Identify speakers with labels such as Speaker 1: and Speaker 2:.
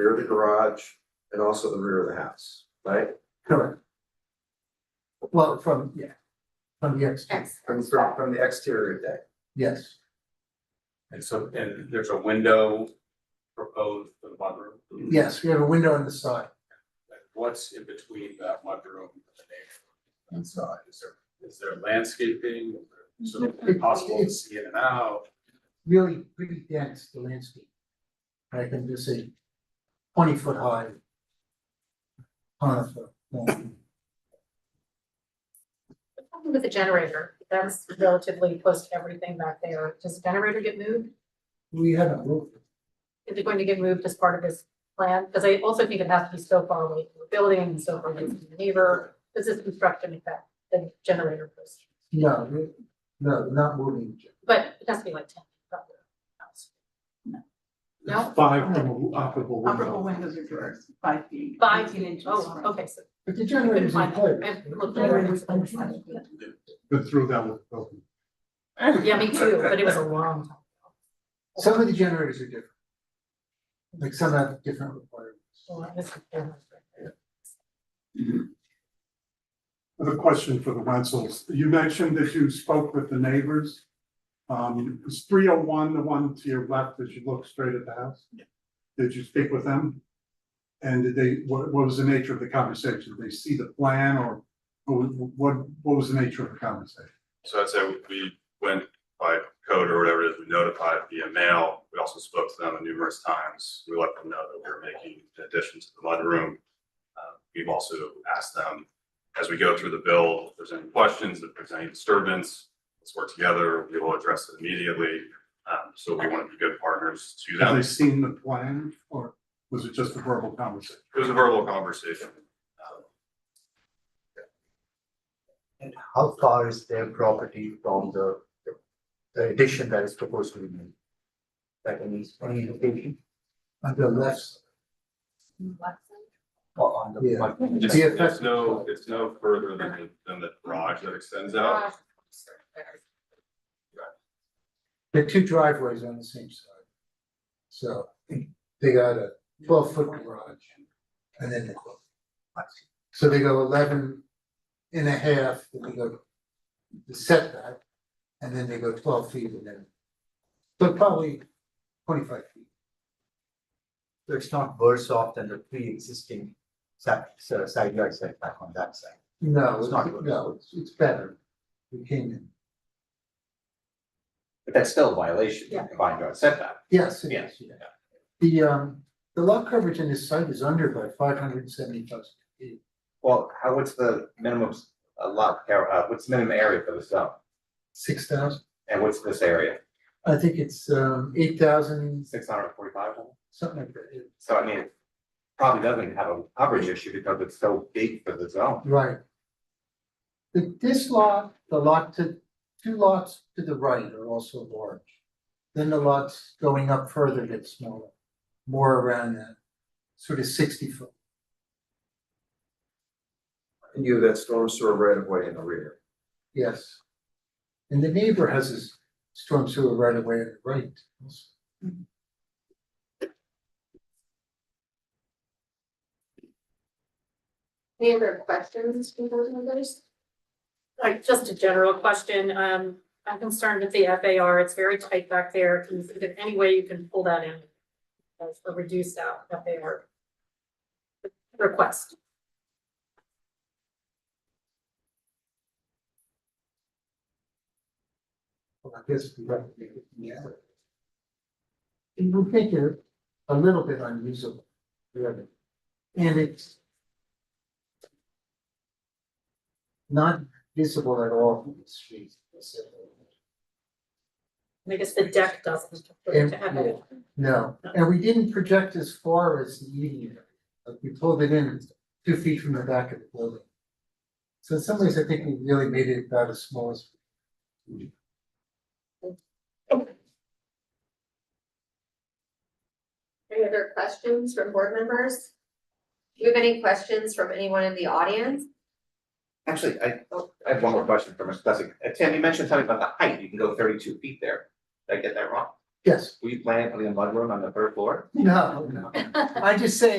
Speaker 1: rear of the garage and also the rear of the house, right?
Speaker 2: Correct. Well, from, yeah, from the exterior,
Speaker 3: Yes.
Speaker 1: From from from the exterior deck.
Speaker 2: yes,
Speaker 4: And so, and there's a window proposed for the mudroom.
Speaker 2: yes, we have a window on the side.
Speaker 4: What's in between that mudroom and the neighbor inside? Is there, is there landscaping? Is there- So it's possible to see in and out?
Speaker 2: Really pretty dense, the landscape. I can just say twenty foot high. Conifer, lawn.
Speaker 3: Something With the generator, that's relatively close to everything back there. Does the generator get moved?
Speaker 2: we had a roof,
Speaker 3: Is it going to get moved as part of this plan? Because I also think it has to be so far away from the building and so far away from the neighbor. This is construction effect, the generator post.
Speaker 2: no, we- no, not moving.
Speaker 3: But it has to be like ten. feet from the house. No?
Speaker 5: Five from operable
Speaker 6: Operable
Speaker 5: window.
Speaker 6: windows or doors, five feet.
Speaker 3: Five,
Speaker 6: 18 inches
Speaker 3: oh,
Speaker 6: from-
Speaker 3: okay, so
Speaker 2: But the generator's in
Speaker 3: Couldn't find
Speaker 2: place.
Speaker 3: it. I looked
Speaker 2: The generator's in place.
Speaker 5: Been through that with broken.
Speaker 3: Yeah, me too, but it was a long time.
Speaker 2: Some of the generators are different. Like some have different requirements.
Speaker 3: So I missed it.
Speaker 5: I have a question for the Wenzels. You mentioned that you spoke with the neighbors. Um, is three oh one the one to your left as you look straight at the house? Did you speak with them? And did they, what, what was the nature of the conversation? Did they see the plan or or what, what was the nature of the conversation?
Speaker 7: So I'd say we went by code or whatever it is, we notified via mail. We also spoke to them numerous times. We let them know that we were making an addition to the mudroom. Uh, We've also asked them, as we go through the bill, if there's any questions, if there's any disturbance, let's work together. We will address it immediately. Um, So we want to be good partners to
Speaker 5: Have
Speaker 7: them.
Speaker 5: they seen the plan or was it just a verbal conversation?
Speaker 7: It was a verbal conversation. Um,
Speaker 8: And how far is their property from the, the addition that is proposed to be made? Like any, any location
Speaker 2: On the left, side.
Speaker 8: or on the.
Speaker 2: Yeah.
Speaker 7: It's,
Speaker 2: The
Speaker 7: it's
Speaker 2: effect-
Speaker 7: no, it's no further than, the- than the garage that extends out.
Speaker 3: Uh,
Speaker 2: there are two driveways on the same side. So they got a twelve foot garage and then the club. So they go eleven and a half, then they go the setback, and then they go twelve feet and then. So probably twenty five feet.
Speaker 8: So it's not worse off than the pre-existing side, so side yard setback on that side.
Speaker 2: No,
Speaker 8: It's
Speaker 2: it's
Speaker 8: not
Speaker 2: not,
Speaker 8: good.
Speaker 2: no, it's it's better. We came in,
Speaker 9: But that's still a violation,
Speaker 3: Yeah.
Speaker 9: combined yard setback.
Speaker 2: yes, it
Speaker 9: Yes,
Speaker 2: is, yeah. The um, the lot coverage in this site is under by five hundred and seventy thousand feet.
Speaker 9: Well, how, what's the minimum, s- a lot, uh, what's the minimum area for the zone?
Speaker 2: Six thousand,
Speaker 9: And what's this area?
Speaker 2: I think it's um eight thousand,
Speaker 9: Six hundred forty-five?
Speaker 2: something like that,
Speaker 9: So I mean, it probably doesn't have a coverage issue because it's so big for the zone.
Speaker 2: right. The this lot, the lot to, two lots to the right are also large. Then the lots going up further get smaller, more around that, sort of sixty foot.
Speaker 1: And you have that storm sewer right of way in the rear.
Speaker 2: Yes. And the neighbor has his storm sewer right away at the right.
Speaker 3: Any other questions from those members? Like, just a general question, um, I'm concerned with the FAR, it's very tight back there, can you think of any way you can pull that in? As a reduced out FAR. Request,
Speaker 2: Well, I guess we have to make it together. It will make it a little bit unusable, really. And it's not visible at all from the street.
Speaker 3: I guess the deck doesn't.
Speaker 2: And- No, and we didn't project as far as the eating area. Like, we pulled it in two feet from the back of the building. So in some ways, I think we really made it about as small as.
Speaker 10: Any other questions from board members? Do you have any questions from anyone in the audience?
Speaker 9: Actually, I, I have one more question for Mr. Plessy. Uh, Tim, you mentioned something about the height, you can go thirty-two feet there. Did I get that wrong?
Speaker 2: Yes,
Speaker 9: We plan for the mudroom on the third floor?
Speaker 2: no, no, I just say